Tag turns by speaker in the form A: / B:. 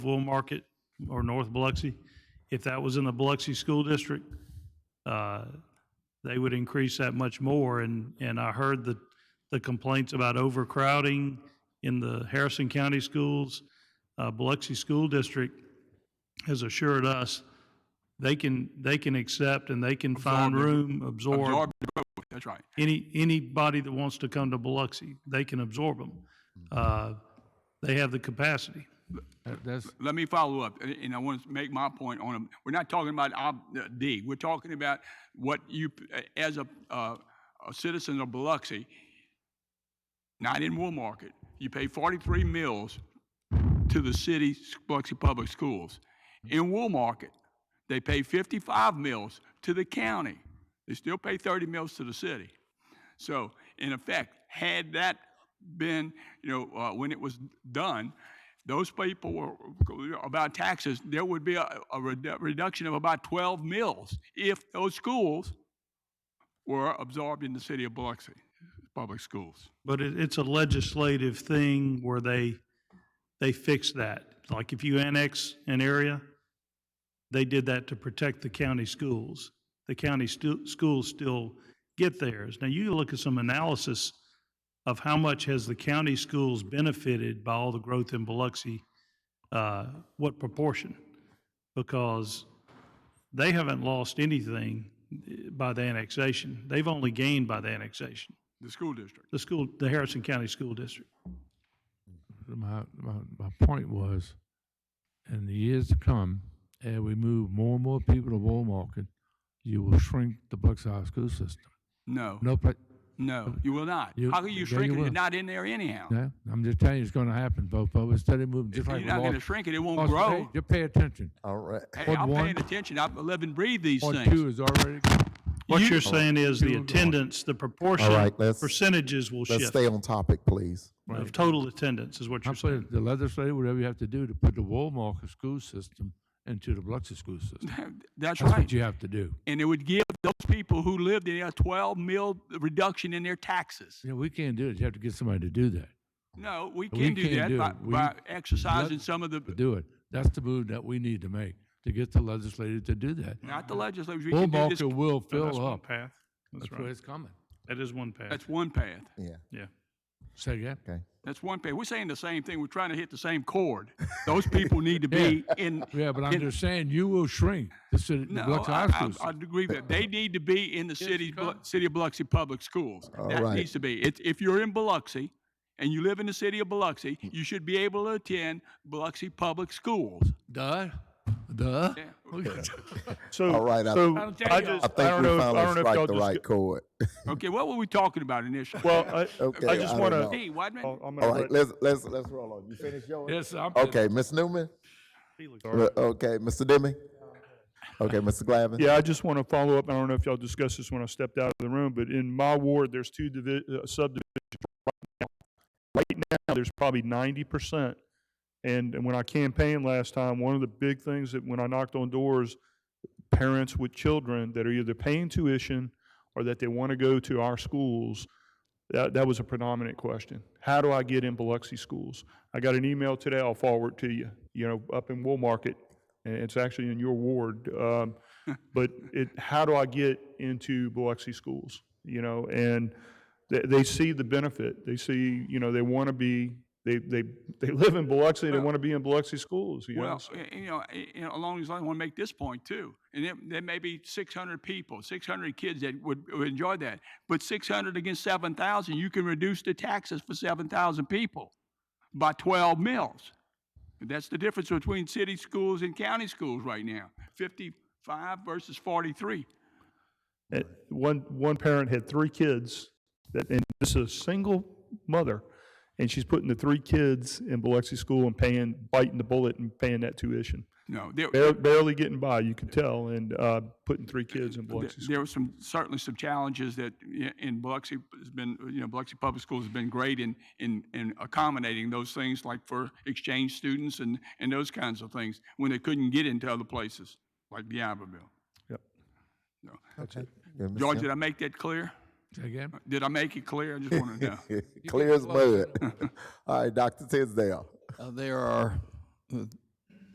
A: Wool Market or North Biloxi. If that was in the Biloxi School District, uh, they would increase that much more. And, and I heard the, the complaints about overcrowding in the Harrison County schools. Uh, Biloxi School District has assured us they can, they can accept and they can find
B: Absorb it.
A: room, absorb
B: Absorb the growth, that's right.
A: any, anybody that wants to come to Biloxi, they can absorb them.
B: Mm-hmm.
A: Uh, They have the capacity.
C: That- That's,
B: Let me follow up, a- and I want to make my point on, we're not talking about ob- uh, D, we're talking about what you, p- a- as a, uh, a citizen of Biloxi, not in Wool Market, you pay forty-three mills to the city s- Biloxi Public Schools. In Wool Market, they pay fifty-five mills to the county. They still pay thirty mills to the city. So, in effect, had that been, you know, uh, when it was done, those people were, about taxes, there would be a, a redu- reduction of about 12 mills if those schools were absorbed in the city of Biloxi, public schools.
A: But it, it's a legislative thing where they, they fix that. Like if you annex an area, they did that to protect the county schools. The county stu- schools still get theirs. Now you look at some analysis of how much has the county schools benefited by all the growth in Biloxi, uh, what proportion? Because they haven't lost anything eh, by the annexation. They've only gained by the annexation
B: The school district.
A: the school, the Harrison County School District.
C: my, my, my point was, in the years to come, as we move more and more people to Wool Market, you will shrink the Bucks High School system.
B: No,
C: No, pla-
B: no, you will not.
C: You-
B: How can
C: yeah,
B: you shrink
C: you
B: it? You're
C: will.
B: not in there anyhow.
C: no, I'm just telling you, it's gonna happen, Bopo. It's steady moving, just
B: You're
C: like.
B: not
C: Los-
B: gonna shrink it, it won't
C: Los-
B: grow.
C: hey, Just pay attention.
D: All right.
B: Hey,
C: Ward
B: I'm
C: one.
B: paying attention. I live and breathe these
C: Point two
B: things.
C: is already,
A: What you're saying is the
C: Here we go.
A: attendance, the proportion,
D: All right, let's-
A: percentages will
D: Let's
A: shift
D: stay on topic, please.
A: of total attendance is what you're
C: I'm
A: saying.
C: saying, the legislature, whatever you have to do to put the Wool Market school system into the Biloxi school system.
B: That's
C: That's
B: right.
C: what you have to do.
B: And it would give those people who lived in there a 12 mil reduction in their taxes.
C: You know, we can't do it. You have to get somebody to do that.
B: No, we
C: We
B: can do
C: can't
B: that
C: do
B: by,
C: it. We-
B: by exercising some of the,
C: to do it. That's the move that we need to make, to get the legislature to do that.
B: not the legislators, we
C: Bull
B: can do this.
C: market
A: So
C: will
A: That's
C: fill
A: one
C: up.
A: path. That's
C: That's where
A: right.
C: it's coming.
A: That is one path.
B: That's one path.
D: Yeah,
A: Yeah.
C: Say again?
D: okay.
B: That's one path. We're saying the same thing. We're trying to hit the same chord. Those people need to be in.
C: Yeah, but I'm
B: in-
C: just saying, you will shrink the city, the
B: No,
C: Biloxi
B: I,
C: High School.
B: I, I agree with that. They need to be in the city, Blo- city of Biloxi Public Schools.
D: All
B: That
D: right.
B: needs to be. It's, if you're in Biloxi and you live in the city of Biloxi, you should be able to attend Biloxi Public Schools.
C: Duh, duh.
B: Yeah.
E: So,
D: All right, I-
E: so
C: I'll tell y'all.
E: I, just,
D: I
E: I,
D: think
E: don't
D: we
E: know, if, I
D: finally
E: don't know if y'all
D: strike
E: just,
D: the right chord.
B: Okay, what were we talking about initially?
E: well, I,
D: Okay,
E: I
D: I
E: just
D: don't
E: want
D: know.
B: Hey, wait a minute.
E: to. I'm
D: All
E: gonna
D: right,
E: let-
D: let's, let's, let's roll on. You finish yours?
C: Yes, I'm.
D: Okay, Ms. Newman? Well, Okay, Mr. Demme? Okay, Mr. Glavin?
E: Yeah, I just want to follow up. I don't know if y'all discussed this when I stepped out of the room, but in my ward, there's two divi- uh, subdivisions right now. Right now, there's probably ninety percent. And, and when I campaigned last time, one of the big things that when I knocked on doors, parents with children that are either paying tuition or that they want to go to our schools, that, that was a predominant question. How do I get in Biloxi schools? I got an email today. I'll forward to you. You know, up in Wool Market, and it's actually in your ward. Um, but it, how do I get into Biloxi schools? You know, and they, they see the benefit. They see, you know, they want to be, they, they, they live in Biloxi, they want to be in Biloxi schools, you know?
B: Well,
E: so-
B: y- you know, a- you know, along these lines, I want to make this point too. And there, there may be 600 people, 600 kids that would, would enjoy that. But 600 against 7,000, you can reduce the taxes for 7,000 people by 12 mills. That's the difference between city schools and county schools right now, 55 versus 43.
E: Uh, One, one parent had three kids, that, and this is a single mother, and she's putting the three kids in Biloxi school and paying, biting the bullet and paying that tuition.
B: No, there,
E: Barely, barely getting by, you can tell, and, uh, putting three kids in
B: Th-
E: Biloxi school.
B: There were some, certainly some challenges that i- in Biloxi has been, you know, Biloxi Public Schools has been great in, in, in accommodating those things like for exchange students and, and those kinds of things when they couldn't get into other places like the Iberville.
E: Yep.
D: Okay. Yeah, Ms.
B: George, did I make that clear?
C: Say again?
B: Did I make it clear? I just want to know.
D: Demme? Clear as mud. All right, Dr. Tisdale.
F: Uh, There are uh,